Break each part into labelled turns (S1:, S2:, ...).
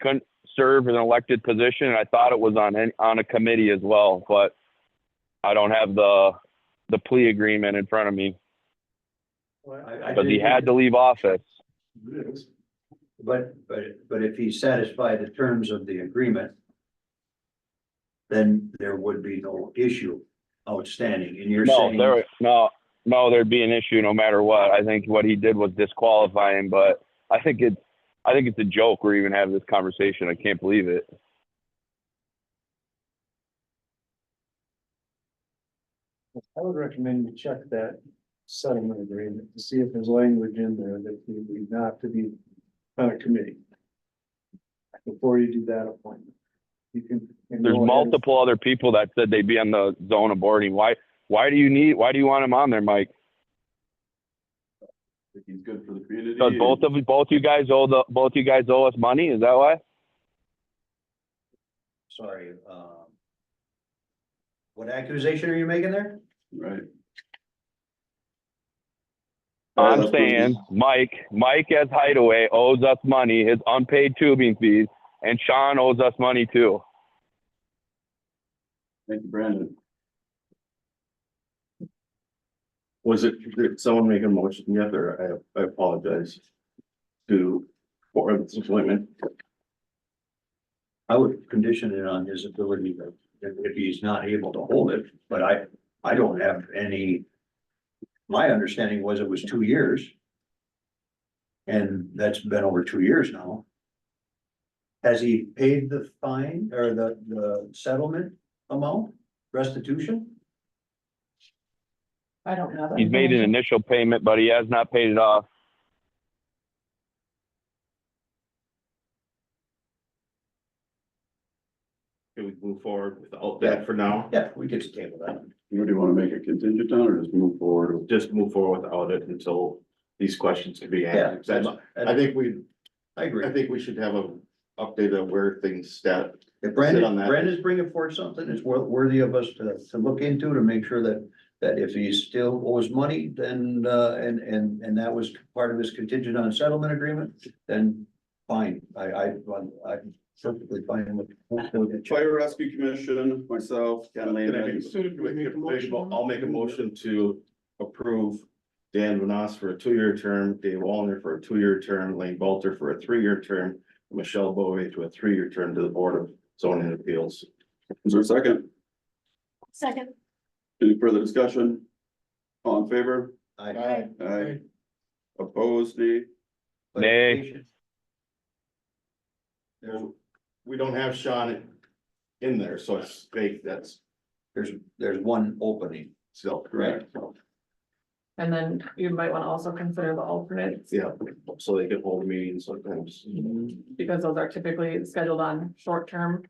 S1: couldn't serve an elected position, and I thought it was on any, on a committee as well, but I don't have the the plea agreement in front of me,
S2: I- I
S1: because he
S2: didn't-
S1: had to leave office.
S2: But, but, but if he's satisfied the terms of the agreement, then there would be no issue outstanding, and you're
S1: No,
S2: saying.
S1: there, no, no, there'd be an issue no matter what. I think what he did was disqualifying, but I think it's, I think it's a joke we're even having this conversation. I can't believe it.
S3: I would recommend you check that settlement agreement to see if there's language in there that you need not to be on a committee. Before you do that appointment. You can. and
S1: There's
S3: go ahead.
S1: multiple other people that said they'd be on the zone of boarding. Why, why do you need, why do you want him on there, Mike?
S4: think he's good for the community.
S1: Does both of, both you guys owe the, both you guys owe us money? Is that why?
S2: Sorry, um. What accusation are you making there?
S4: Right.
S1: I'm saying, Mike, Mike as Hideaway owes us money, his unpaid tubing fees, and Sean owes us money too.
S4: Thank you, Brandon. Was it, did someone make a motion yet, or I, I apologize to, for this appointment?
S2: I would condition it on his ability to, if he's not able to hold it, but I, I don't have any. My understanding was it was two years. And that's been over two years now. Has he paid the fine or the, the settlement amount, restitution?
S5: I don't know. that
S1: He's made an
S5: information.
S1: initial payment, but he has not paid it off.
S6: Can we move forward without that for now?
S2: Yeah, we could table that.
S4: You do want to make a contingent on, or just move forward?
S6: Just move forward without it until these questions can be
S2: Yeah,
S6: answered. 'Cause
S2: that's-
S6: I I think we,
S2: I agree.
S6: I think we should have a update of where things stand.
S2: If
S6: on
S2: Brandon,
S6: that.
S2: Brandon's bringing forward something, it's wor- worthy of us to, to look into to make sure that, that if he still owes money, then, uh, and, and, and that was part of his contingent on a settlement agreement, then fine, I, I, I'm perfectly fine with.
S4: Fire Rescue Commission, myself, Ken
S6: Can I
S4: Lehman.
S6: make- I'll make a motion to approve Dan Vinas for a two-year term, Dave Wallner for a two-year term, Lane Balter for a three-year term, Michelle Bowie to a three-year term to the Board of Zoning Appeals.
S4: Is there a second?
S5: Second.
S4: Any further discussion? All in favor?
S2: I-
S4: Aye. Opposed, nay?
S1: Nay.
S2: There's,
S6: We don't have Sean in there, so it's fake, that's
S2: there's, there's one opening,
S6: still correct.
S2: right?
S5: And then you might want to also consider the alternates,
S6: Yeah, so they can hold meetings sometimes.
S5: because those are typically scheduled on short-term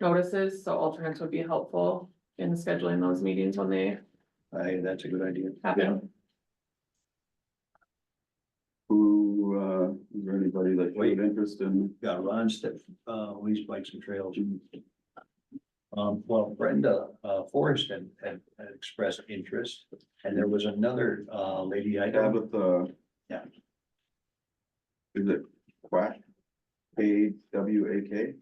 S5: notices, so alternates would be helpful in scheduling those meetings when they
S2: I, that's a good idea.
S5: happen.
S4: Who, uh, is there anybody that showed interest in?
S2: Yeah, Ron Stiff, uh, leads bikes and trails. Um, well, Brenda, uh, Forrest had, had had expressed interest, and there was another, uh, lady I don't.
S4: Tabitha.
S2: Yeah.
S4: uh, Is it quack? A W A K?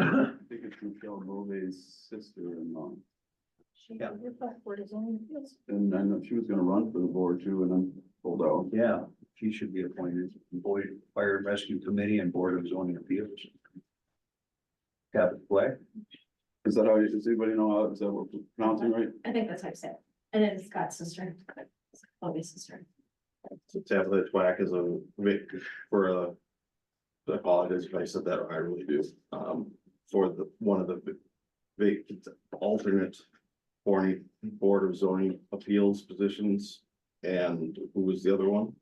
S4: I think it's Michelle Bovie's sister-in-law,
S2: Yeah.
S4: and I know she was gonna run for the board too, and then pulled out.
S2: Yeah, she should be appointed, Boy, Fire and Rescue Committee and Board of Zoning Appeals. Captain Black,
S4: Is that how, you- does anybody know how, is that what we're pronouncing right?
S7: I think that's how I said, it. and it's Scott's sister, Bobby's sister.
S6: So Tabitha Twack is a, Vic for a. I apologize if I said that, I really do, um, for the, one of the. Vacant alternate. Board, Board of Zoning Appeals positions, and who was the other one?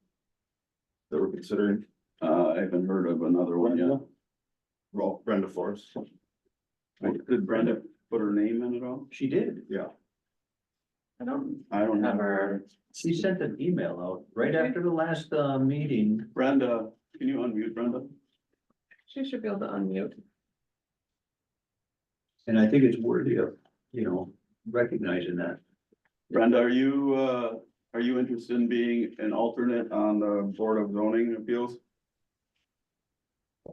S6: That we're considering,
S4: Uh, I haven't heard of another one yet.
S6: Well, Brenda Forrest,
S4: Did Brenda put her name in at all?
S2: she did,
S6: yeah,
S5: I don't,
S4: I don't have
S5: Never.
S4: her.
S2: she sent an email out right after the last, uh, meeting.
S4: Brenda, can you unmute Brenda?
S5: she should be able to unmute.
S2: And I think it's worthy of, you know, recognizing that.
S4: Brenda, are you, uh, are you interested in being an alternate on the Board of Zoning Appeals?